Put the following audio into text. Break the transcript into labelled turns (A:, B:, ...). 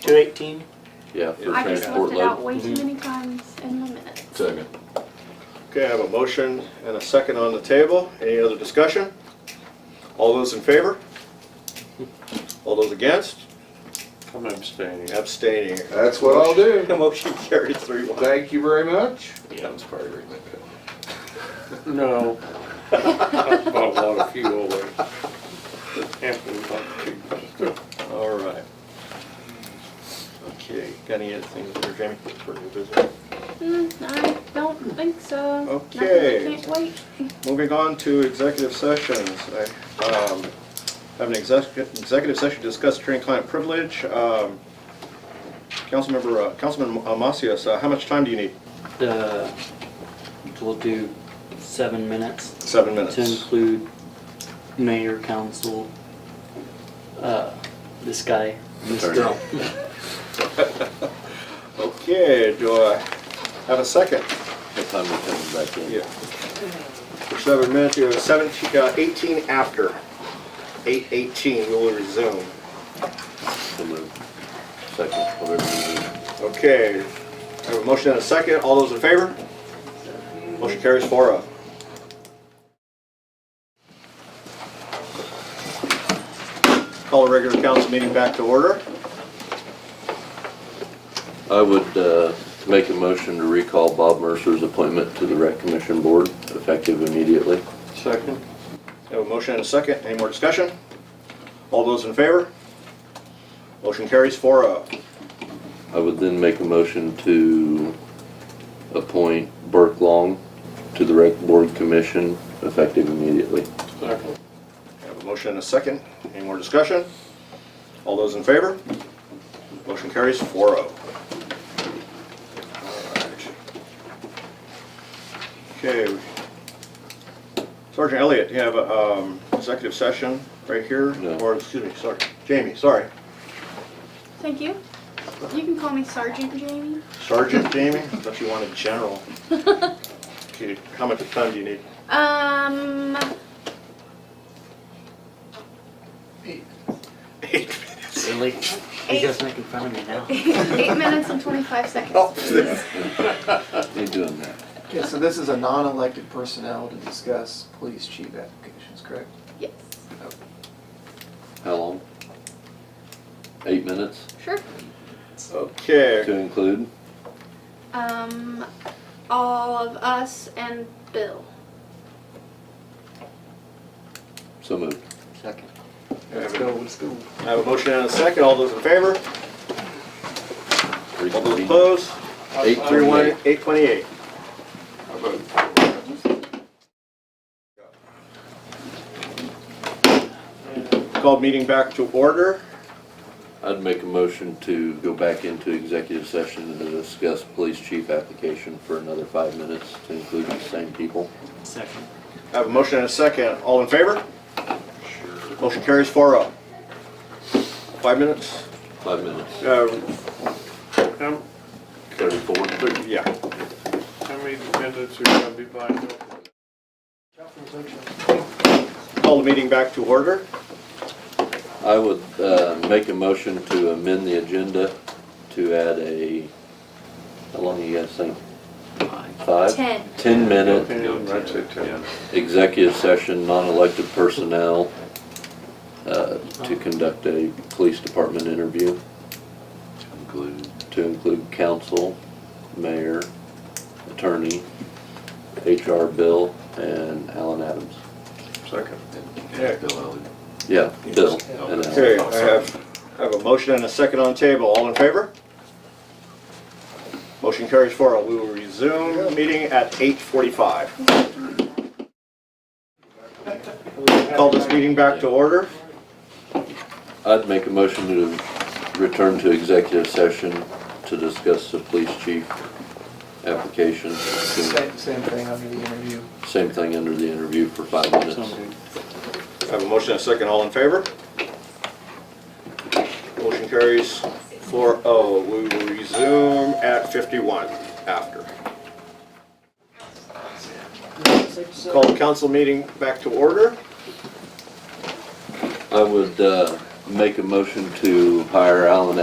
A: Two eighteen?
B: Yeah, for
C: I just
B: transport
C: left it out
B: load.
C: way too many times in the minutes.
B: Second.
D: Okay, I have a motion and a second on the table. Any other discussion? All those in favor? All those against?
E: I'm abstaining.
D: Abstaining.
F: That's what I'll do.
D: The motion carries three one.
F: Thank you very much.
B: That was part of it.
E: No. I bought a lot of fuel there. Hampton bought two.
D: All right. Okay, got any other things there, Jamie, for new business?
C: Mm, I don't think so. Nothing I
D: Okay.
C: Can't wait.
D: Moving on to executive sessions. I um, have an exec- executive session to discuss attorney-client privilege. Um, Councilmember, uh, Councilman Amacias, uh, how much time do you need?
G: Uh, We'll do seven minutes
D: Seven
G: to
D: minutes.
G: include mayor, council, uh, this guy, and this
B: Attorney.
G: girl.
D: Okay, do I have a second?
B: What time we coming back in?
D: Yeah. For seven minutes, you have seventeen, uh, eighteen after. Eight eighteen, we will resume.
B: So moved. Second, whatever you need.
D: Okay, I have a motion and a second. All those in favor? Motion carries four oh. Call a regular council meeting back to order.
B: I would uh, make a motion to recall Bob Mercer's appointment to the Rec Commission Board effective immediately.
E: Second?
D: I have a motion and a second. Any more discussion? All those in favor? Motion carries four oh.
B: I would then make a motion to appoint Burke Long to the Rec Board Commission effective immediately.
E: Second.
D: I have a motion and a second. Any more discussion? All those in favor? Motion carries four oh. Okay. Sergeant Elliott, you have a um, executive session right here?
B: No.
D: Or, excuse me, sorry, Jamie, sorry.
C: Thank you. You can call me Sergeant Jamie.
D: Sergeant Jamie, I thought you wanted general. Okay, How much time do you need?
C: Um,
D: Eight
G: Really? You guys making fun of me now?
C: eight minutes and twenty-five seconds.
D: minutes.
B: You doing that?
H: Okay, so this is a non-elected personnel to discuss police chief applications, correct?
C: Yes,
B: How long? Eight minutes
C: sure.
D: Okay,
B: to include?
C: Um, all of us and Bill.
B: So moved.
G: Second.
H: Let's go, let's go.
D: I have a motion and a second. All those in favor? All those
B: Reconvene.
D: opposed?
B: Eight
D: Three one,
B: twenty-eight.
D: eight twenty-eight. Called meeting back to order.
B: I'd make a motion to go back into executive session to discuss police chief application for another five minutes to include the same people.
G: Second.
D: I have a motion and a second. All in favor? Motion carries four oh. Five minutes?
B: Five minutes.
D: Uh,
E: How,
B: Thirty-four.
D: yeah.
E: how many minutes are gonna be buying up?
D: Call the meeting back to order.
B: I would uh, make a motion to amend the agenda to add a, how long do you guys think? Five?
C: Ten.
B: Ten-minute
E: I'd say ten.
B: executive session, non-elected personnel, uh, to conduct a police department interview. To include? To include council, mayor, attorney, HR Bill, and Alan Adams.
E: Second.
B: Yeah, Bill and
D: Okay,
B: Alan.
D: I have, I have a motion and a second on the table. All in favor? Motion carries four oh. We will resume meeting at eight forty-five. Call this meeting back to order.
B: I'd make a motion to return to executive session to discuss the police chief application.
H: Same, same thing under the interview.
B: Same thing under the interview for five minutes.
G: So moved.
D: I have a motion and a second. All in favor? Motion carries four oh. We will resume at fifty-one after. Call the council meeting back to order.
B: I would uh, make a motion to hire Alan